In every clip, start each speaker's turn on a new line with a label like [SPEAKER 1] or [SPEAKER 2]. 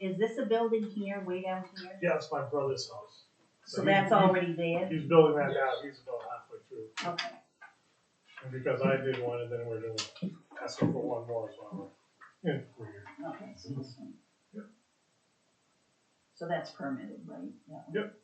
[SPEAKER 1] is this a building here, way down here?
[SPEAKER 2] Yeah, it's my brother's house.
[SPEAKER 1] So
[SPEAKER 2] he-
[SPEAKER 1] that's
[SPEAKER 2] he-
[SPEAKER 1] already there?
[SPEAKER 2] He's building that out, he's about halfway through,
[SPEAKER 1] Okay,
[SPEAKER 2] and because I did one, and then we're doing, asking for one more as well. Yeah, weird.
[SPEAKER 1] okay, so this one.
[SPEAKER 2] Yep.
[SPEAKER 1] So that's permitted, right? That one?
[SPEAKER 2] Yep.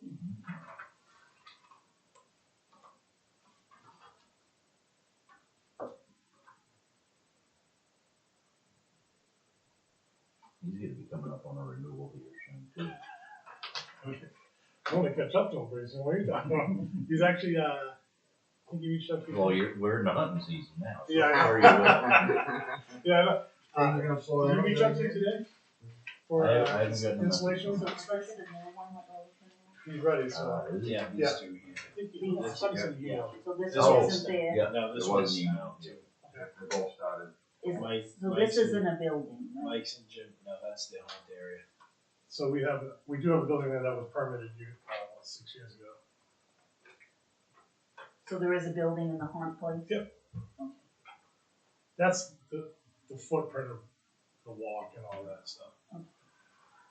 [SPEAKER 3] He's gonna be coming up on a renewal here soon too.
[SPEAKER 2] I wanna catch up to him pretty soon, what are you talking about? He's actually, uh, I think he reached out to.
[SPEAKER 3] Well, you're, we're in the hunting season now. so
[SPEAKER 2] Yeah, I know.
[SPEAKER 3] how are you doing?
[SPEAKER 2] Yeah, I know. uh,
[SPEAKER 4] Things are gonna slow
[SPEAKER 2] did you
[SPEAKER 4] down
[SPEAKER 2] reach
[SPEAKER 4] there
[SPEAKER 2] out to him
[SPEAKER 4] again.
[SPEAKER 2] today? For,
[SPEAKER 3] I- I haven't
[SPEAKER 2] uh,
[SPEAKER 3] gotten the message.
[SPEAKER 2] insulation
[SPEAKER 1] So is
[SPEAKER 2] inspection?
[SPEAKER 1] this another one that we're looking
[SPEAKER 2] He's ready, so.
[SPEAKER 3] Uh, is it?
[SPEAKER 5] Yeah,
[SPEAKER 2] Yeah.
[SPEAKER 5] these two
[SPEAKER 2] I
[SPEAKER 5] here.
[SPEAKER 2] think he- somebody said he emailed.
[SPEAKER 1] at? So this
[SPEAKER 3] Oh.
[SPEAKER 1] isn't there,
[SPEAKER 3] Yeah,
[SPEAKER 5] No, this
[SPEAKER 3] There was
[SPEAKER 5] was, uh,
[SPEAKER 3] an email.
[SPEAKER 5] too.
[SPEAKER 4] They both started.
[SPEAKER 1] is,
[SPEAKER 5] Mike,
[SPEAKER 1] so
[SPEAKER 5] Mike's
[SPEAKER 1] this isn't
[SPEAKER 5] and,
[SPEAKER 1] a building, right?
[SPEAKER 5] Mike's and Jim. No, that's the haunted area.
[SPEAKER 2] So we have, we do have a building there that was permitted, you, uh, six years ago.
[SPEAKER 1] So there is a building in the haunt place?
[SPEAKER 2] That's the, the footprint of the walk and all that stuff.
[SPEAKER 1] Okay.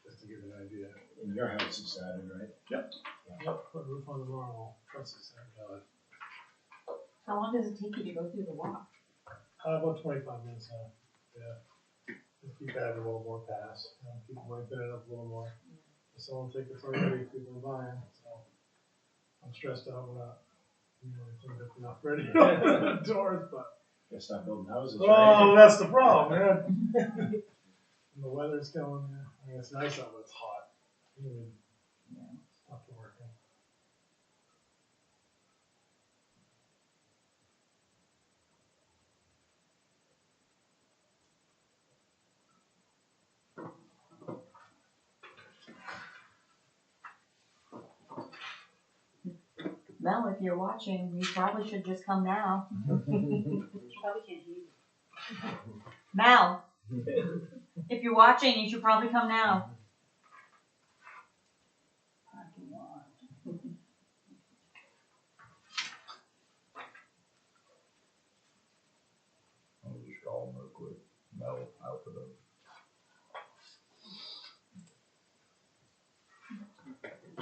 [SPEAKER 2] Just to give you an idea.
[SPEAKER 5] And your house is added, right?
[SPEAKER 2] Yep, put a roof on the normal, that's the same color.
[SPEAKER 6] How long does it take you to go through the walk?
[SPEAKER 2] Uh, about twenty-five minutes now, yeah. Just keep adding a little more pass, you know, keep wiping it up a little more. If someone take it already, people are buying, so. I'm stressed out, we're not, you know, I think that's enough ready to open the doors, but.
[SPEAKER 5] It's not building houses,
[SPEAKER 2] Oh,
[SPEAKER 5] right?
[SPEAKER 2] that's the problem, man. and the weather's going, I mean, it's nice out, but it's hot. Humid. It's not working.
[SPEAKER 6] Mel, if you're watching, you probably should just come now.
[SPEAKER 1] You probably can't hear it.
[SPEAKER 6] Mel, if you're watching, you should probably come now.
[SPEAKER 1] Parking lot.
[SPEAKER 3] I'll just call him real quick. Mel, I'll put up.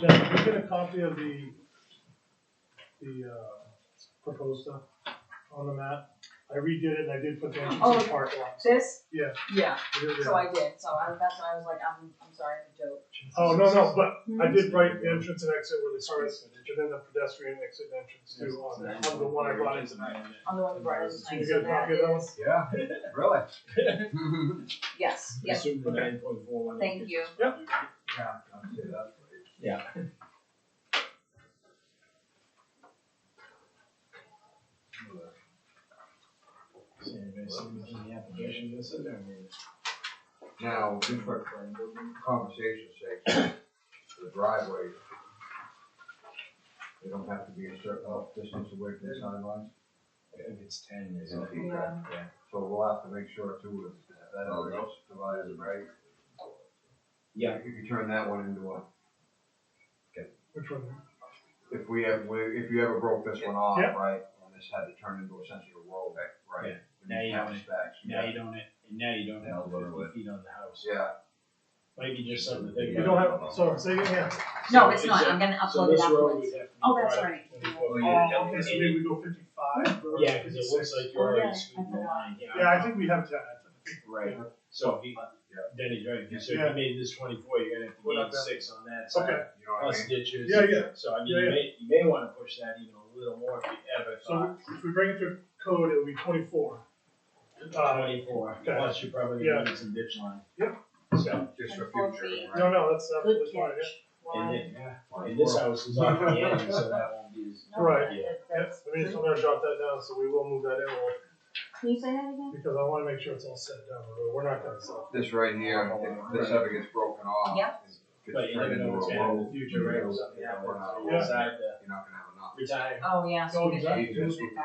[SPEAKER 2] Jeff, can you get a copy of the, the, uh, proposed stuff on the map? I redid it and I did put the entrance
[SPEAKER 6] Oh.
[SPEAKER 2] in part one.
[SPEAKER 6] This?
[SPEAKER 2] Yeah.
[SPEAKER 6] Yeah,
[SPEAKER 2] You did,
[SPEAKER 6] so
[SPEAKER 2] yeah.
[SPEAKER 6] I did, so I, that's why I was like, I'm, I'm sorry, I'm a joke.
[SPEAKER 2] Oh, no, no, but I did
[SPEAKER 6] Hmm.
[SPEAKER 2] write the entrance and exit where they started, and then the pedestrian exit and entrance too on that, on the one I brought in tonight.
[SPEAKER 6] I'm the one who brought it.
[SPEAKER 2] Did you get a copy of that one?
[SPEAKER 4] Yeah, really?
[SPEAKER 6] Yes, yes,
[SPEAKER 5] Assume the nine point four one.
[SPEAKER 6] Thank you.
[SPEAKER 5] Yep.
[SPEAKER 4] Yeah, I'd say that's right.
[SPEAKER 5] Yeah. So anybody see anything in the application that's in there?
[SPEAKER 4] Now, just for conversation's sake, the driveway, they don't have to be a certain uh, distance away from the sidelines,
[SPEAKER 5] If it's ten, is it?
[SPEAKER 6] Yeah.
[SPEAKER 5] Yeah.
[SPEAKER 4] so we'll have to make sure too that that area is divided, right?
[SPEAKER 5] Oh, Yeah.
[SPEAKER 4] If you turn that one into a,
[SPEAKER 2] Which one?
[SPEAKER 4] if we have, if you ever broke this one off,
[SPEAKER 2] Yeah.
[SPEAKER 4] right, and this had to turn into essentially a road, right?
[SPEAKER 5] Yeah. Now you have it.
[SPEAKER 4] Specs,
[SPEAKER 5] Now
[SPEAKER 4] yeah.
[SPEAKER 5] you don't, and now you don't
[SPEAKER 3] Now
[SPEAKER 5] have
[SPEAKER 3] lower
[SPEAKER 5] fifty feet on the house.
[SPEAKER 4] Yeah,
[SPEAKER 5] Might be just something to think
[SPEAKER 2] You
[SPEAKER 5] about.
[SPEAKER 2] don't have, so, say it again.
[SPEAKER 6] no, it's not, I'm gonna upload
[SPEAKER 5] So
[SPEAKER 6] it
[SPEAKER 5] this road
[SPEAKER 6] afterwards.
[SPEAKER 5] would have to be.
[SPEAKER 6] Oh, that's
[SPEAKER 5] brought up
[SPEAKER 6] right.
[SPEAKER 5] to the foot.
[SPEAKER 2] Oh, okay, so maybe we go fifty-five? or
[SPEAKER 5] Yeah, cause it looks
[SPEAKER 2] 56.
[SPEAKER 5] like you're
[SPEAKER 1] Oh, yeah,
[SPEAKER 5] already
[SPEAKER 1] that's
[SPEAKER 5] scooting the
[SPEAKER 1] a lot.
[SPEAKER 5] line, yeah.
[SPEAKER 2] Yeah, I think we have ten, I think.
[SPEAKER 5] Right, so if he,
[SPEAKER 4] Yeah.
[SPEAKER 5] then he's right, so if
[SPEAKER 2] Yeah.
[SPEAKER 5] you made this twenty-four, you're gonna have
[SPEAKER 2] Well,
[SPEAKER 5] to gain
[SPEAKER 2] that's-
[SPEAKER 5] six on that
[SPEAKER 2] Okay.
[SPEAKER 5] side,
[SPEAKER 4] you know what I mean?
[SPEAKER 5] plus ditches.
[SPEAKER 2] Yeah, yeah.
[SPEAKER 5] So I
[SPEAKER 2] Yeah,
[SPEAKER 5] mean, you
[SPEAKER 2] yeah.
[SPEAKER 5] may, you may wanna push that even a little more if you ever
[SPEAKER 2] So
[SPEAKER 5] thought
[SPEAKER 2] if we bring it to code, it'll be twenty-four. Uh,
[SPEAKER 5] twenty-four,
[SPEAKER 2] okay.
[SPEAKER 5] plus you're probably
[SPEAKER 2] Yeah.
[SPEAKER 5] gonna need some ditch line.
[SPEAKER 2] Yep.
[SPEAKER 5] So,
[SPEAKER 4] Just for
[SPEAKER 6] And four
[SPEAKER 4] future,
[SPEAKER 6] feet.
[SPEAKER 4] right?
[SPEAKER 2] no, no, that's absolutely
[SPEAKER 1] Good
[SPEAKER 2] fine,
[SPEAKER 1] catch.
[SPEAKER 5] and
[SPEAKER 6] Why?
[SPEAKER 5] then, yeah, and this house is off the end, so that won't be as.
[SPEAKER 6] No,
[SPEAKER 2] Right.
[SPEAKER 6] that-
[SPEAKER 5] Yeah.
[SPEAKER 6] that-
[SPEAKER 2] yeah.
[SPEAKER 6] that's-
[SPEAKER 2] I mean, so I'm gonna jot that down, so we will move that in, we'll-
[SPEAKER 6] Can you say that again?
[SPEAKER 2] because I wanna make sure it's all set down, the road. we're not gonna sell.
[SPEAKER 4] This right here, if this ever gets broken off.
[SPEAKER 6] Yeah.
[SPEAKER 4] it's
[SPEAKER 5] But you
[SPEAKER 4] turned
[SPEAKER 5] never know
[SPEAKER 4] into
[SPEAKER 5] what's
[SPEAKER 4] a
[SPEAKER 5] gonna happen in
[SPEAKER 4] road,
[SPEAKER 5] the future, right,
[SPEAKER 4] you
[SPEAKER 5] or
[SPEAKER 4] know,
[SPEAKER 5] something
[SPEAKER 4] yeah,
[SPEAKER 5] happens,
[SPEAKER 4] we're not-
[SPEAKER 5] so you decide to
[SPEAKER 4] You're not gonna have enough.
[SPEAKER 5] retire.
[SPEAKER 6] Oh, yeah.
[SPEAKER 2] Oh,
[SPEAKER 6] so we
[SPEAKER 2] exactly.
[SPEAKER 6] can move it back.